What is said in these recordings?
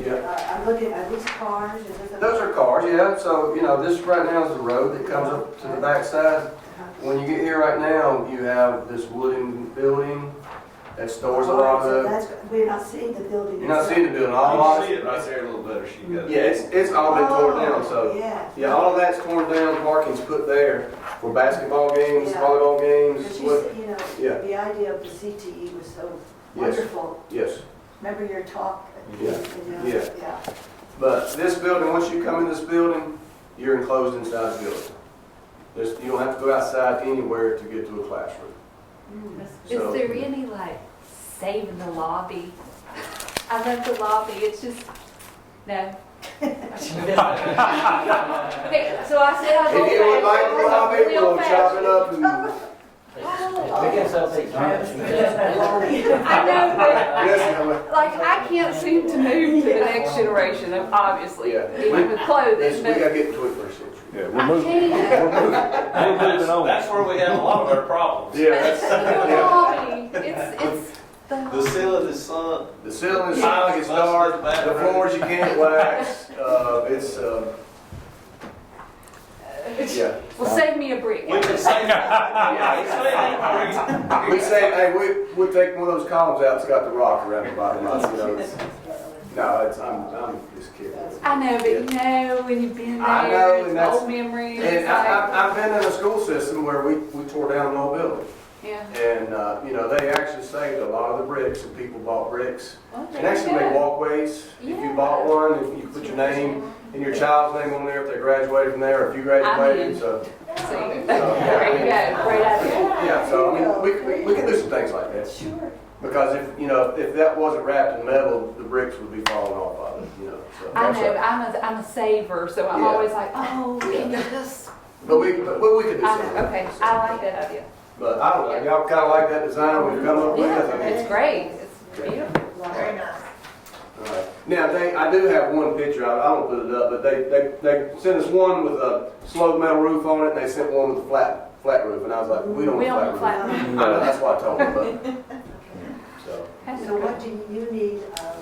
Yeah. Uh, I'm looking at these cars, is this a? Those are cars, yeah, so, you know, this right now is the road that comes up to the backside. When you get here right now, you have this wooden building that stores a lot So of, the- that's, we're not seeing the building. you're not seeing the building, all I of can see it. it right there a little better, she got it. Yeah, it's, it's all been torn down, so, Oh, Yeah. yeah, all of that's torn down, parking's put there for basketball games, Yeah. volleyball But games, she's, what, you know, Yeah. the idea of the CTE was so yes, wonderful. yes. Remember your talk? Yeah. You know, Yeah. Yeah. But this building, once you come in this building, you're enclosed inside the building. There's, you don't have to go outside anywhere to get to a classroom. Mm. Is So- there any like saving the lobby? I love the lobby, it's just, no. Hey, So I said I If go back. you would like to come in, we'll chop it up and I guess I'll take Yeah. Oh, I know, Yes, I'm a- but like I can't seem to move to the next generation, obviously, Yeah. even with yes, clothing, we but gotta get to it first century. Yeah, I we're moving. can't. That's, that's where we have a lot of our problems. Yeah, that's, But the yeah. lobby, it's, it's The the, ceiling is sunk. The ceiling is high, it's dark, the floors you can't wax, uh, it's, uh, yeah. well, save me a brick. We can save. Yeah, it's save it. We say, hey, we, we take one of those columns out, it's got the rock around the bottom, you know, it's, no, it's, I'm, I'm just kidding. I know, but you know, when you've been I know, there, and it's that's- old memories. And I, like- I- I've been in a school system where we, we tore down an old building. Yeah. And, uh, you know, they actually saved a lot of the bricks and people bought bricks. Well, And Oh, there you actually made go. walkways. If you Yeah. bought one, if you put your name and your child's name on there, if they graduated from there, if you graduated, in. so. See? yeah, I There you mean- go, great idea. Yeah, so I mean, we, we, we can do some things like that. Sure. Because if, you know, if that wasn't wrapped in metal, the bricks would be falling off of it, you know, so. I know, I'm a, I'm a saver, so I'm Yeah. always like, oh, Yeah. can you just, But we, but we could do I something. know, okay, I like that idea. But I don't know, y'all kinda like that design we've come up with? I Yeah, mean, it's great, it's beautiful. Very nice. Alright. Now, they, I do have one picture, I, I don't put it up, but they, they, they sent us one with a slope metal roof on it, and they sent one with a flat, flat roof, and I was like, we don't We don't want a flat flat. roof. I know, that's why I told them, but, so, So what do you need, uh,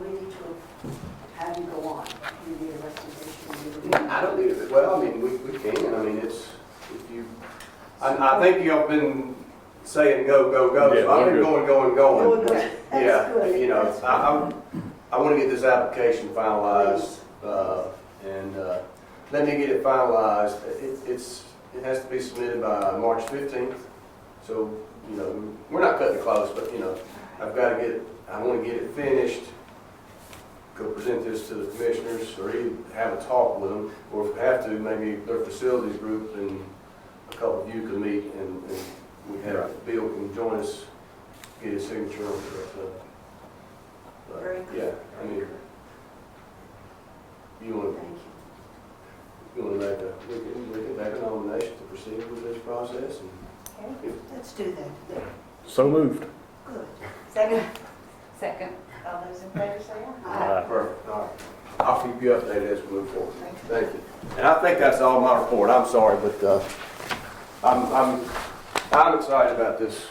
we need to have you go on? You need a recommendation? you need a- I don't need it, well, I mean, we, we can, I mean, it's, if you, I, I think y'all been saying go, go, go, so I've been Yeah. going, going, going. That's Yeah, good. Oh, you know, That's I, I'm, I wanna get this application finalized, uh, and, uh, let me get it finalized. It, it's, it has to be submitted by March fifteenth, so, you know, we're not cutting it close, but, you know, I've gotta get, I wanna get it finished, go present this to the commissioners, or even have a talk with them, or if we have to, maybe their facilities group and a couple of you can meet, and, and we have, Bill can join us, get his signature on it, so. But, Very good. Yeah, I mean, you wanna Thank you. you want to make a, we can, we can make a nomination to proceed with this process and. Let's do that. Yeah. So moved. Good. Second. Second. All those in favor say aye. Aye. Perfect, all right. I'll keep you updated as we move forward. Thank you. And I think that's all my report, I'm sorry, but, uh, I'm, I'm, I'm excited about this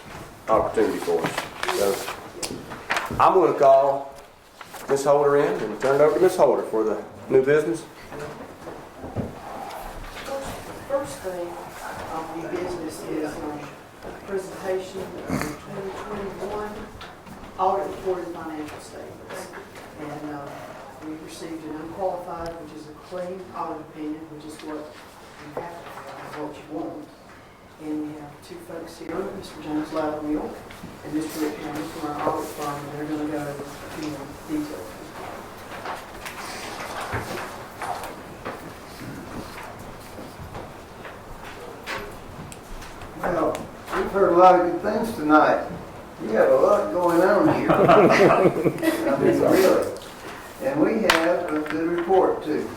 opportunity for us. So, I'm gonna call Ms. Holder in and turn it over to Ms. Holder for the new business. First thing on the business is a presentation of the 2021 audit report and financial statements. And uh, we received an unqualified, which is a clean audit opinion, which is what you have, what you want. And we have two folks here, Mr. James Lattimore and Mr. Rick Hammond from our audit firm, and they're going to go into detail. Well, we've heard a lot of good things tonight. You have a lot going on here. I mean, really. And we have a good report too,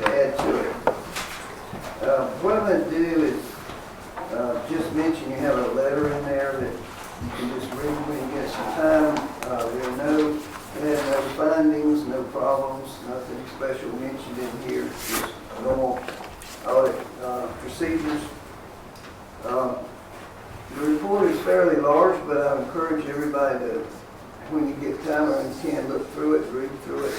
to add to it. Uh, What I'm gonna do is, uh, just mention you have a letter in there that you can just read when you get some time. Uh, There are no, there are no findings, no problems, nothing special mentioned in here, just normal audit uh, procedures. Um, The report is fairly large, but I encourage everybody to, when you get time, and can look through it, read through it,